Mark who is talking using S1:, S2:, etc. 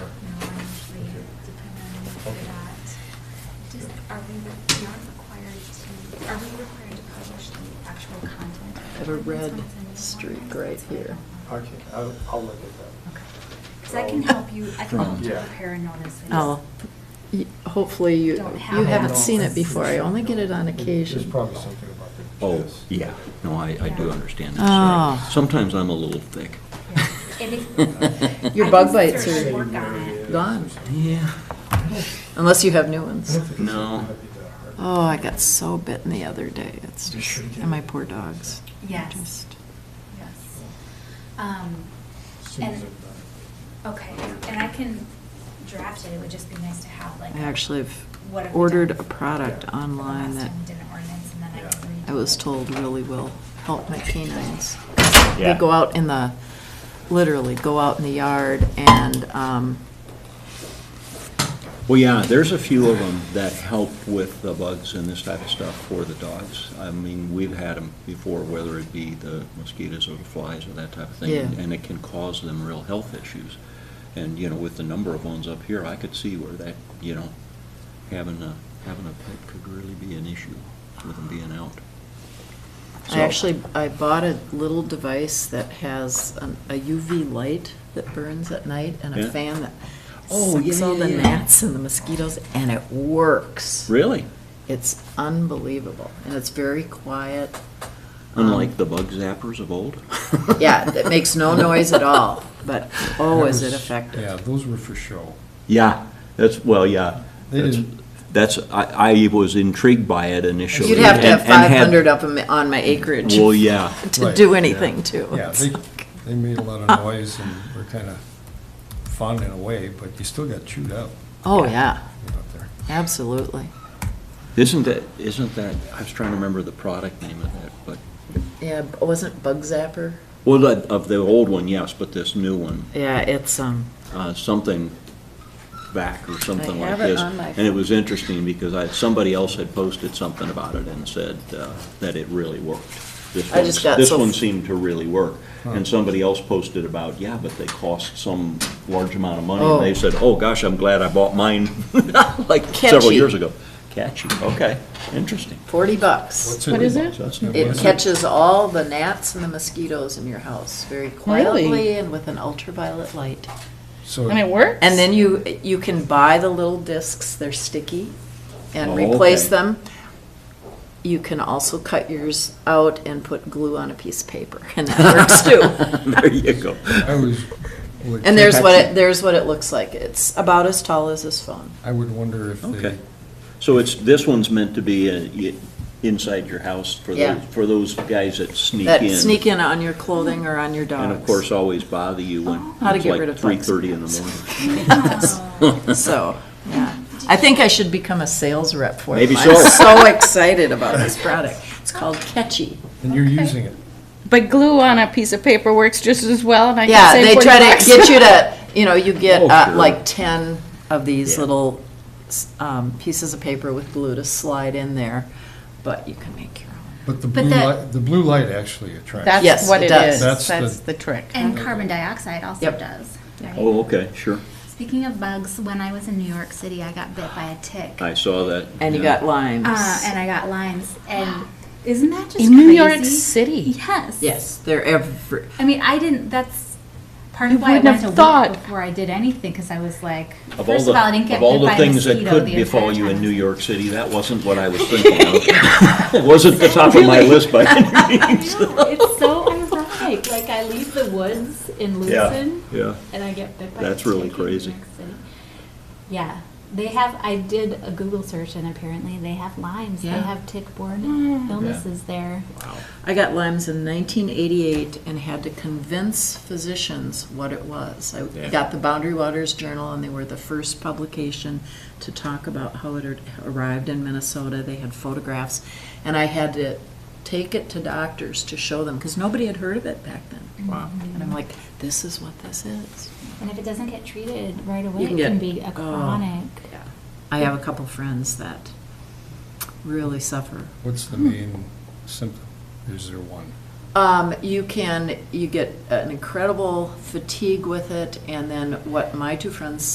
S1: we aren't required to, are we required to publish the actual content?
S2: I have a red
S1: That's what I'm saying.
S2: streak right here.
S3: Okay, I'll, I'll look at
S1: Okay. Because I can help you, I can help you
S3: Yeah.
S1: prepare a notice.
S4: Oh,
S2: Y- Hopefully, you,
S1: Don't
S2: you
S1: have
S2: haven't
S1: it.
S2: seen it before, I only get it on
S3: that. There's
S2: occasion.
S3: probably something about the.
S5: Oh,
S3: chest.
S5: yeah, no, I, I do understand that, sorry.
S4: Oh.
S5: Sometimes I'm a little thick.
S1: Yeah. And if-
S2: Your
S1: I
S2: bug
S1: can
S2: bites
S1: sort of
S2: are-
S1: Work on it.
S2: Gone.
S5: Yeah,
S2: Unless you have new ones.
S5: No.
S4: oh, I got so bitten the other day. It's
S3: You
S4: just,
S3: should get
S4: and my
S3: it.
S4: poor dogs.
S1: Yes.
S4: Just-
S1: Yes. Um, and- Okay, and I can draft it, it would just be nice to have like.
S4: I actually
S1: what have
S4: have
S1: we
S4: ordered
S1: done
S4: a product
S3: Yeah.
S1: for the last
S4: online that
S1: time we did an ordinance and then I can read
S4: I was
S1: it.
S4: told really will help my canines. They
S5: Yeah.
S4: go out in the, literally go out in the yard and, um,
S5: Well, yeah, there's a few of them that help with the bugs and this type of stuff for the dogs. I mean, we've had them before, whether it be the mosquitoes or the flies or that type of thing.
S4: Yeah.
S5: And it can cause them real health issues. And, you know, with the number of ones up here, I could see where that, you know, having a, having a pet could really be an issue with them being out.
S4: I
S5: So-
S4: actually, I bought a little device that has an- a UV light that burns at night and a
S5: Yeah.
S4: fan that
S5: Oh, yeah,
S4: sucks all
S5: yeah,
S4: the
S5: yeah.
S4: gnats and the mosquitoes, and it works.
S5: Really?
S4: It's unbelievable, and it's very quiet.
S5: Unlike the bug zappers of old?
S4: Um, Yeah, it makes no noise at all, but oh, is it effective?
S6: Yeah, those were for show.
S5: Yeah, that's, well, yeah.
S6: They
S5: That's-
S6: didn't-
S5: That's, I, I was intrigued by it initially.
S4: You'd have to have
S5: and- and
S4: five
S5: had-
S4: hundred of them on my acreage.
S5: Well, yeah.
S4: To
S6: Right,
S4: do
S6: yeah.
S4: anything to.
S6: Yeah,
S4: It's
S6: they,
S4: like-
S6: they made a lot of noise and were kind of fun in a way, but you still got chewed up
S4: Oh, yeah,
S6: out there.
S4: absolutely.
S5: Isn't that, isn't that, I was trying to remember the product name of that, but,
S4: Yeah, b- wasn't Bug Zapper?
S5: well, that- of the old one, yes, but this new one,
S4: Yeah, it's, um,
S5: uh, something back or something
S4: I
S5: like
S4: have
S5: this.
S4: it on my
S5: And it was interesting because I, somebody else had posted something about it and said uh, that it really worked. This
S4: I just
S5: one's-
S4: got
S5: This
S4: so-
S5: one seemed to really work. And somebody else posted about, yeah, but they cost some large amount of money.
S4: Oh.
S5: And they said, oh, gosh, I'm glad I bought mine like several
S4: Catchy.
S5: years ago. Catchy, okay, interesting.
S4: forty bucks.
S2: What is it?
S5: So that's new.
S4: It
S6: What's it?
S4: catches all the gnats and the mosquitoes in your house very quietly and with an ultraviolet light.
S6: So,
S2: And it works?
S4: And then you, you can buy the little discs, they're sticky, and
S5: Oh,
S4: replace
S5: okay.
S4: them. You can also cut yours out and put glue on a piece of paper, and that works too.
S5: There you go.
S6: I was. would
S4: And there's
S6: think-
S4: what, it there's what it looks like. It's about as tall as this phone.
S6: I would wonder if they,
S5: Okay. So it's, this one's meant to be uh, y- inside your house for
S4: Yeah.
S5: those, for those guys that sneak in.
S4: That sneak in on your clothing or on your dogs.
S5: And of course, always bother you when
S4: How to
S5: it's
S4: get rid
S5: like
S4: of
S5: three
S4: bugs.
S5: thirty in the morning.
S1: Oh.
S4: So, yeah, I think I should become a sales rep for them.
S5: Maybe
S4: I'm
S5: so.
S4: so excited about this product. It's called Catchy.
S6: and you're using it.
S2: But glue on a piece of paper works just as well, and I
S4: Yeah, they try to get you to, you know, you get
S5: Oh,
S4: uh,
S5: sure.
S4: like ten of these
S5: Yeah.
S4: little s- um, pieces of paper with glue to slide in there, but you can make your own.
S6: But the
S1: But
S6: blue
S1: that-
S6: light, the blue light actually attracts.
S4: Yes,
S2: That's what
S4: it
S2: it
S4: does.
S2: is.
S6: That's
S2: That's
S6: the-
S2: the trick.
S1: And carbon dioxide also
S4: Yep.
S1: does, right?
S5: Oh, okay, sure.
S1: Speaking of bugs, when I was in New York City, I got bit by a tick.
S5: I saw that.
S4: And you
S5: yeah.
S4: got limes.
S1: Uh, and I got limes. And isn't that just
S2: In New York
S1: crazy?
S2: City.
S1: Yes.
S4: Yes, they're every,
S1: I mean, I didn't. That's part
S2: You
S1: of why I
S2: wouldn't
S1: went
S2: have
S1: a
S2: thought.
S1: week before I did anything because I was like,
S5: Of all
S1: first
S5: the,
S1: of all, I didn't get
S5: of all
S1: bit by
S5: the
S1: a
S5: things that
S1: mosquito
S5: could
S1: the
S5: befall
S1: entire
S5: you in
S1: time.
S5: New York City, that wasn't what I was thinking of. It wasn't the top of my list by any means.
S7: It's so ironic. Like I leave the woods in Lucerne
S5: Yeah,
S7: and I get bit by
S5: That's
S7: a
S5: really
S7: tick in
S5: crazy.
S7: New York City. Yeah, they have. I did a Google search and apparently they have limes. They
S4: Yeah.
S7: have tick-borne illnesses there.
S4: I got limes in 1988 and had to convince physicians what it was. I
S5: Yeah.
S4: got the Boundary Waters Journal, and they were the first publication to talk about how it had arrived in Minnesota. They had photographs, and I had to take it to doctors to show them because nobody had heard of it back then. Wow. And I'm like, this is what this is.
S7: And if it doesn't get treated right away,
S4: You can
S7: it can
S4: get-
S7: be a
S4: oh.
S7: chronic.
S4: I have a couple friends that really suffer
S6: What's the main symptom? Is there one?
S4: Um, you can, you get an incredible fatigue with it, and then what my two friends